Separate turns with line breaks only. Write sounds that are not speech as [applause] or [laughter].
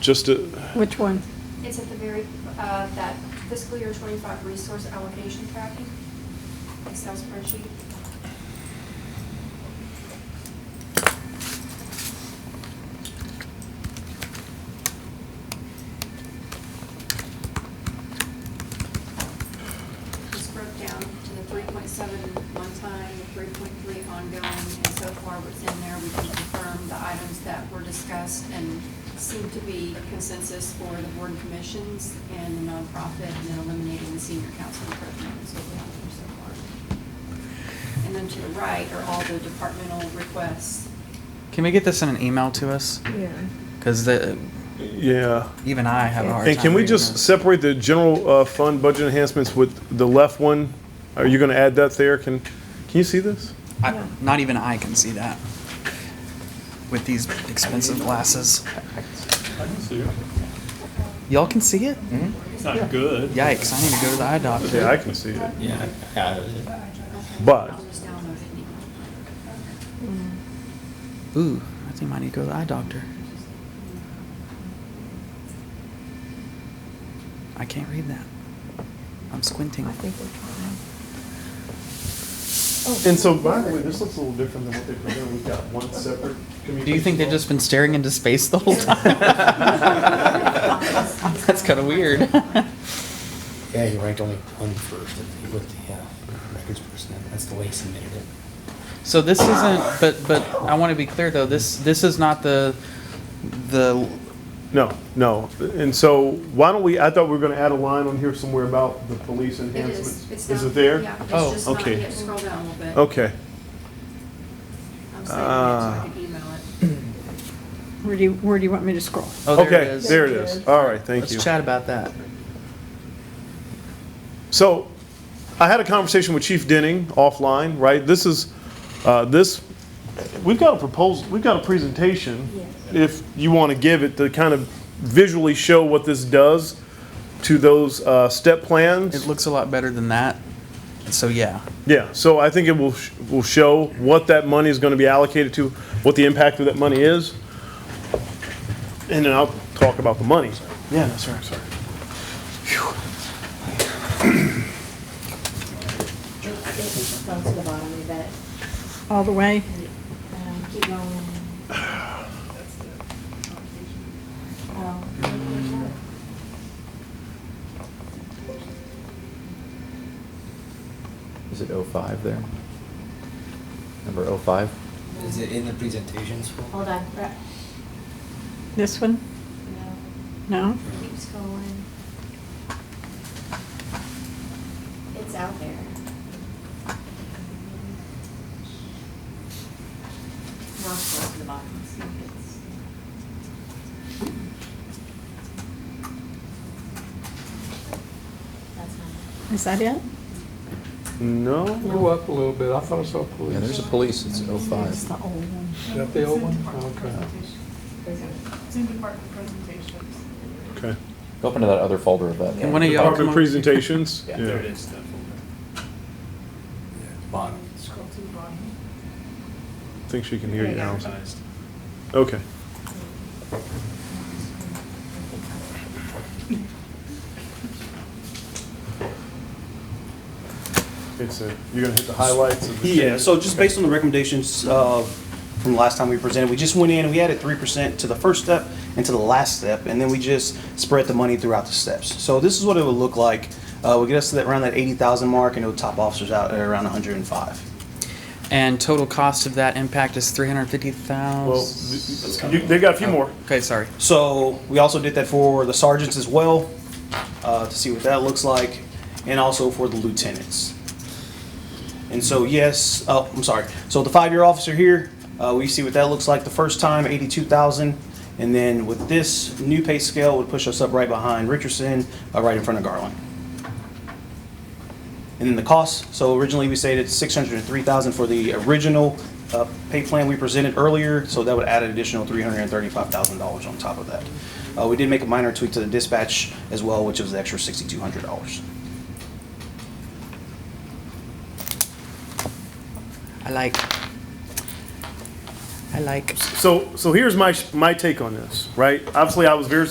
just, a-
Which one?
It's at the very, uh, that fiscal year twenty-five resource allocation tracking, Excel spreadsheet. It's broke down to the three point seven one time, the three point three ongoing, and so far what's in there, we can confirm the items that were discussed and seem to be consensus for the board and commissions and the nonprofit, and then eliminating the senior council program, is what we have there so far. And then to the right are all the departmental requests.
Can we get this in an email to us?
Yeah.
Because
yeah.
even I have a hard time.
And can we
reading
just
this.
separate the general uh, fund budget enhancements with the left one? Are you going to add that there? Can, can you see this?
I, not even I can see that with these expensive glasses. Y'all can see it?
Hmm? It's not good.
Yikes! I need to go to the eye doctor.
Hmm? Yeah, I can see it.
Yeah.
But-
I'll just download it now.
Mm.
Ooh, I think I need to go to the eye doctor. I can't read that. I'm squinting.
I think we're Oh.
And so, by the way, this looks a little different than what they presented. We've got one separate communication.
Do you think they've just been staring into space the whole time?
[laughs]
[laughs] That's kind of weird. [laughs]
Yeah, he ranked only one first, he put the uh, records person, in. that's the way he submitted it.
So this isn't, but, but I want to be clear though, this, this is not the, the,
No, no. And so, why don't we, I thought we were going to add a line on here somewhere about the police
It
enhancements.
is, it's
Is
down-
it there?
Yeah,
Oh,
it's just not
okay. Oh,
yet, scroll down a little bit.
Okay.
I'm saving it so I
Ah.
can email it.
fine. Where do you, where do you want me to scroll?
oh, there it
Okay,
is.
there it is. All right, thank you.
Let's chat about that.
So, I had a conversation with Chief Denning offline, right? This is, uh, this, we've got a proposal, we've got a presentation. If you want to give it, to kind of visually show what this does to those, uh, step plans.
It looks a lot better than that. So yeah,
Yeah, so I think it will, sh- will show what that money is gonna be allocated to, what the impact of that money is. And then I'll talk about the money. Yeah, no, sorry, sorry.
Down to the bottom of it.
All the way?
Um, Keep going. Oh.
Is it 05 there? Number 05?
Is it in the presentations?
Hold on, Brett.
This one?
No,
No?
keeps going. It's out there. Now scroll to the bottom, see if it's. That's not it.
Is that it?
No?
Go up a little bit, I thought I saw police.
Yeah, there's a police, it's 05.
It's the old one.
Is that the old one? Okay.
It's in department presentations.
Okay.
Go up into that other folder of that.
And one of y'all come
Department
on-
presentations?
Yeah.
There it is, that folder.
Bottom.
Scroll to the bottom.
I think she can hear you now.
Advertised.
Okay. It's a, you're gonna hit the highlights of the.
Yeah, so just based on the recommendations uh, from last time we presented, we just went in and we added 3% to the first step and to the last step, and then we just spread the money throughout the steps. So this is what it would look like. Uh, We'll get us to that, around that 80,000 mark, and it would top officers out at around 105.
and total cost of that impact is three hundred fifty
Well,
thousand.
th- you- they've got a few more.
Okay, sorry.
So we also did that for the sergeants as well, uh, to see what that looks like, and also for the lieutenants. And so, yes, oh, I'm sorry. So the five-year officer here, uh, we see what that looks like the first time, eighty-two thousand. And then with this new pay scale would push us up right behind Richardson, uh, right in front of Garland. And then the cost, so originally we stated six hundred and three thousand for the original, uh, pay plan we presented earlier, so that would add an additional three hundred and thirty-five thousand dollars on top of that. Uh, we did make a minor tweak to the dispatch as well, which was the extra sixty-two hundred dollars.
I like, I like.
So, so here's my, my take on this, right? Obviously, I was very